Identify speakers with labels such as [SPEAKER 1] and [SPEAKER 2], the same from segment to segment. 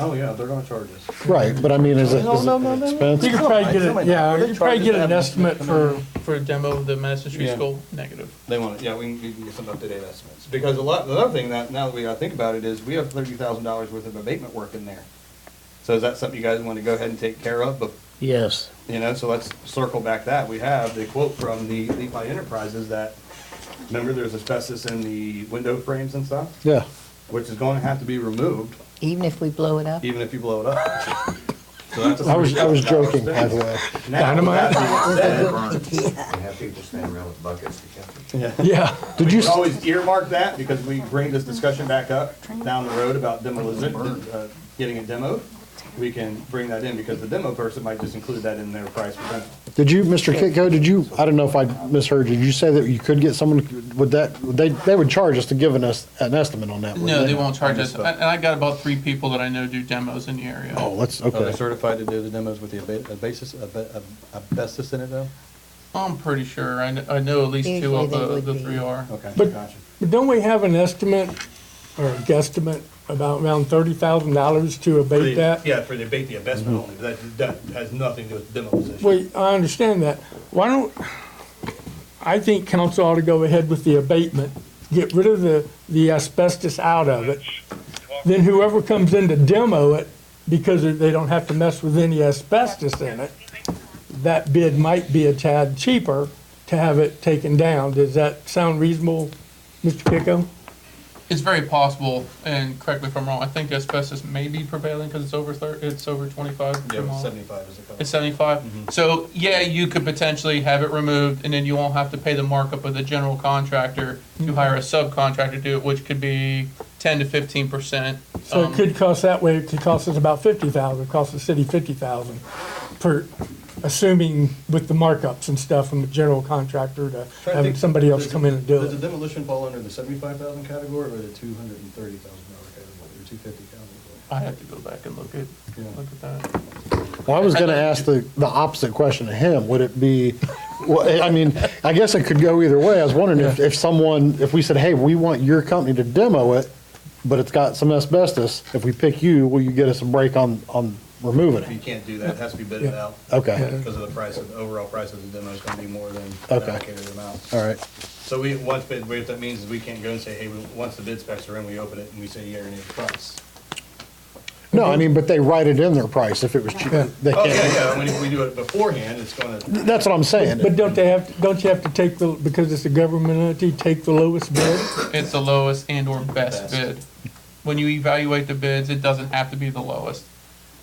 [SPEAKER 1] Oh, yeah, they're gonna charge us.
[SPEAKER 2] Right, but I mean, is it, is it an
[SPEAKER 3] You could
[SPEAKER 2] expense?
[SPEAKER 3] probably get, it. yeah, you could probably get an
[SPEAKER 1] Charges.
[SPEAKER 3] estimate for, for a demo of the Madison Street
[SPEAKER 1] Yeah.
[SPEAKER 3] School, negative.
[SPEAKER 1] They want, it. yeah, we can, we can get some up-to-date estimates, because a lot, the other thing that, now that we gotta think about it, is we have thirty thousand dollars worth of abatement work in there. So is that something you guys wanna go ahead and take care of, but,
[SPEAKER 2] Yes.
[SPEAKER 1] you know, so let's circle back that, we have the quote from the Levi Enterprises that, remember, there's asbestos in the window frames and stuff,
[SPEAKER 2] Yeah,
[SPEAKER 1] which is gonna have to be removed,
[SPEAKER 4] Even if we blow it up?
[SPEAKER 1] even if you blow it up. So that's a
[SPEAKER 2] I was, I was joking, by
[SPEAKER 1] $30,000
[SPEAKER 2] the way.
[SPEAKER 1] thing. Now, with that being said,
[SPEAKER 5] We have people standing around with buckets to catch it.
[SPEAKER 2] Yeah, did you,
[SPEAKER 1] We always earmark that because we bring this discussion back up down the road about demolition, uh, getting a demo. We can bring that in because the demo person might just include that in their price for demo.
[SPEAKER 2] did you, Mr. Kitco, did you, I don't know if I misheard, did you say that you could get someone, would that, would they, they would charge us to giving us an estimate on that? wouldn't
[SPEAKER 3] No, they won't charge us,
[SPEAKER 1] misspoke.
[SPEAKER 3] and I got about three people that I know do demos in the area.
[SPEAKER 2] Oh, let's,
[SPEAKER 1] Are they
[SPEAKER 2] okay,
[SPEAKER 1] certified to do the demos with the basis, asbestos in it though?
[SPEAKER 3] I'm pretty sure, I, kn- I know at least two
[SPEAKER 4] Usually
[SPEAKER 3] of
[SPEAKER 4] they
[SPEAKER 3] the,
[SPEAKER 4] would
[SPEAKER 3] the
[SPEAKER 4] be.
[SPEAKER 3] three are.
[SPEAKER 1] Okay,
[SPEAKER 6] But-
[SPEAKER 1] gotcha.
[SPEAKER 6] But don't we have an estimate or a guesstimate about around thirty thousand dollars to abate that?
[SPEAKER 1] Yeah, for the abate the investment
[SPEAKER 2] Mm-hmm.
[SPEAKER 1] only, that, that has nothing to do with demolition.
[SPEAKER 6] Wait, I understand that. Why don't, I think council ought to go ahead with the abatement, get rid of the, the asbestos out of it. Then whoever comes in to demo it, because they don't have to mess with any asbestos in it, that bid might be a tad cheaper to have it taken down. Does that sound reasonable, Mr. Picco?
[SPEAKER 3] It's very possible, and correct me if I'm wrong, I think asbestos may be prevailing because it's over thir it's over twenty-five.
[SPEAKER 1] Yeah,
[SPEAKER 3] tomorrow.
[SPEAKER 1] seventy-five is a couple.
[SPEAKER 3] It's seventy-five? So, yeah, you could potentially have it removed, and then you won't have to pay the markup of the general contractor.
[SPEAKER 4] Mm-hmm.
[SPEAKER 3] You hire a subcontractor to do it, which could be ten to fifteen percent. Um,
[SPEAKER 6] So it could cost that way, it could cost us about fifty thousand, it costs the city fifty thousand per, assuming with the markups and stuff from the general contractor to
[SPEAKER 1] Trying to
[SPEAKER 6] having
[SPEAKER 1] think,
[SPEAKER 6] somebody else
[SPEAKER 1] does-
[SPEAKER 6] come in and do
[SPEAKER 1] Does the
[SPEAKER 6] it.
[SPEAKER 1] demolition fall under the seventy-five thousand category or the two hundred and thirty thousand dollar category, or two fifty category?
[SPEAKER 3] I have to go back and look at, look at that.
[SPEAKER 2] well, I was gonna ask the, the opposite question to him, would it be, well, I mean, I guess it could go either way, I was wondering if, if someone, if we said, hey, we want your company to demo it, but it's got some asbestos, if we pick you, will you get us a break on, on removing
[SPEAKER 1] You
[SPEAKER 2] it?
[SPEAKER 1] can't do that, it has to be bidded out.
[SPEAKER 2] Okay,
[SPEAKER 1] Because of the price of, the overall price of the demo is gonna be more than the
[SPEAKER 2] Okay.
[SPEAKER 1] allocated amount.
[SPEAKER 2] all right.
[SPEAKER 1] So we, once bid, what that means is we can't go and say, hey, we- once the bid specs are in, we open it and we say, yeah, you're gonna need the price.
[SPEAKER 2] No, I mean, but they write it in their price if it was cheap. They
[SPEAKER 1] Oh, yeah,
[SPEAKER 2] can't.
[SPEAKER 1] yeah, I mean, if we do it beforehand, it's gonna,
[SPEAKER 2] That's what I'm saying.
[SPEAKER 6] But don't they have, don't you have to take the, because it's a government entity, take the lowest bid?
[SPEAKER 3] It's the lowest and or
[SPEAKER 1] Best.
[SPEAKER 3] best bid. When you evaluate the bids, it doesn't have to be the lowest.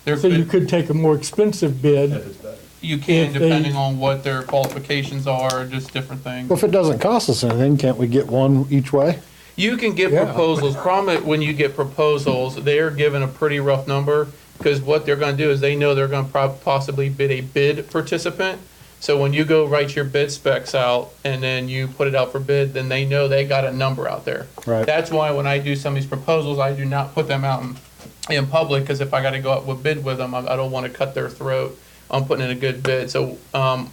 [SPEAKER 3] There
[SPEAKER 6] So you
[SPEAKER 3] could,
[SPEAKER 6] could take a more expensive
[SPEAKER 1] if
[SPEAKER 6] bid.
[SPEAKER 1] it's better.
[SPEAKER 3] you can,
[SPEAKER 6] if they-
[SPEAKER 3] depending on what their qualifications are, just different things.
[SPEAKER 2] Well, if it doesn't cost us anything, can't we get one each way?
[SPEAKER 3] You can get
[SPEAKER 6] Yeah.
[SPEAKER 3] proposals. Problem is, when you get proposals, they're given a pretty rough number because what they're going to do is they know they're going to prob- possibly bid a bid participant. So when you go write your bid specs out and then you put it out for bid, then they know they got a number out there.
[SPEAKER 2] Right.
[SPEAKER 3] That's why when I do some of these proposals, I do not put them out in, in public because if I got to go out with bid with them, I, I don't want to cut their throat. I'm putting in a good bid. So um,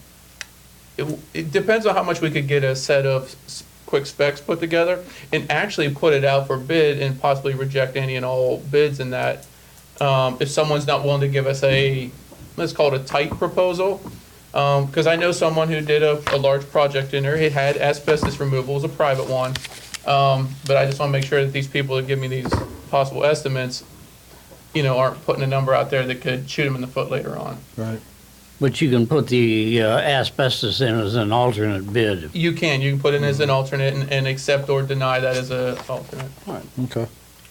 [SPEAKER 3] it, it depends on how much we could get a set of s- quick specs put together and actually put it out for bid and possibly reject any and all bids in that. Um, if someone's not willing to give us a, let's call it a tight proposal. Um, cause I know someone who did a, a large project in there. It had asbestos removal, it was a private one. Um, but I just wanna make sure that these people that give me these possible estimates, you know, aren't putting a number out there that could shoot them in the foot later on.
[SPEAKER 2] Right.
[SPEAKER 7] But you can put the uh, asbestos in as an alternate bid.
[SPEAKER 3] You can, you can put in as an alternate and, and accept or deny that as a alternate.
[SPEAKER 2] Okay.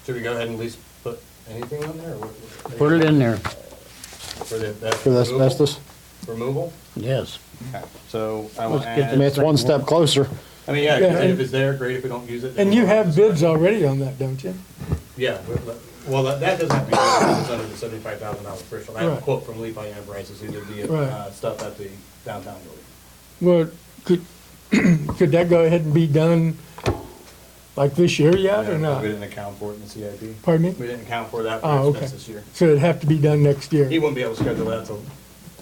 [SPEAKER 1] Should we go ahead and at least put anything on there? or what-
[SPEAKER 7] Put it in there,
[SPEAKER 1] For the, that.
[SPEAKER 2] For the
[SPEAKER 1] removal?
[SPEAKER 2] asbestos?
[SPEAKER 1] Removal?
[SPEAKER 7] yes.
[SPEAKER 1] Okay. So I will
[SPEAKER 2] Let's get- I mean,
[SPEAKER 1] add,
[SPEAKER 2] it's one step closer.
[SPEAKER 1] I mean, yeah, 'cause
[SPEAKER 6] Yeah,
[SPEAKER 1] if
[SPEAKER 6] and-
[SPEAKER 1] it's there, great, if we don't use it. then
[SPEAKER 6] And you
[SPEAKER 1] we'll-
[SPEAKER 6] have bids already on that, don't you?
[SPEAKER 1] Yeah, we- we- well, that that doesn't have to be, done, it's under the seventy-five thousand dollar threshold. I have a
[SPEAKER 6] Right.
[SPEAKER 1] quote from Levi Enterprises, who did the
[SPEAKER 6] Right.
[SPEAKER 1] uh, stuff at the downtown building.
[SPEAKER 6] Well, could, could that go ahead and be done like this year yet or not?
[SPEAKER 1] We didn't account for it in the CIP.
[SPEAKER 6] Pardon me?
[SPEAKER 1] We didn't account for that
[SPEAKER 6] Oh,
[SPEAKER 1] for
[SPEAKER 6] okay.
[SPEAKER 1] expense this year.
[SPEAKER 6] So it'd have to be done next
[SPEAKER 1] He
[SPEAKER 6] year.
[SPEAKER 1] wouldn't be able to schedule that till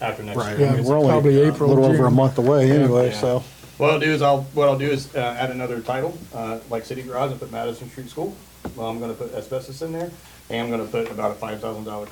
[SPEAKER 1] after next year.
[SPEAKER 2] I mean,
[SPEAKER 6] Yeah,
[SPEAKER 2] We're only
[SPEAKER 6] probably
[SPEAKER 2] a
[SPEAKER 6] April,
[SPEAKER 2] little over a
[SPEAKER 6] June.
[SPEAKER 2] month away anyway,
[SPEAKER 1] Yeah.
[SPEAKER 2] so.
[SPEAKER 1] What I'll do is I'll, what I'll do is uh, add another title, uh, like City Garage, and put Madison Street School. Well, I'm gonna put asbestos in there. am gonna put about a five thousand dollar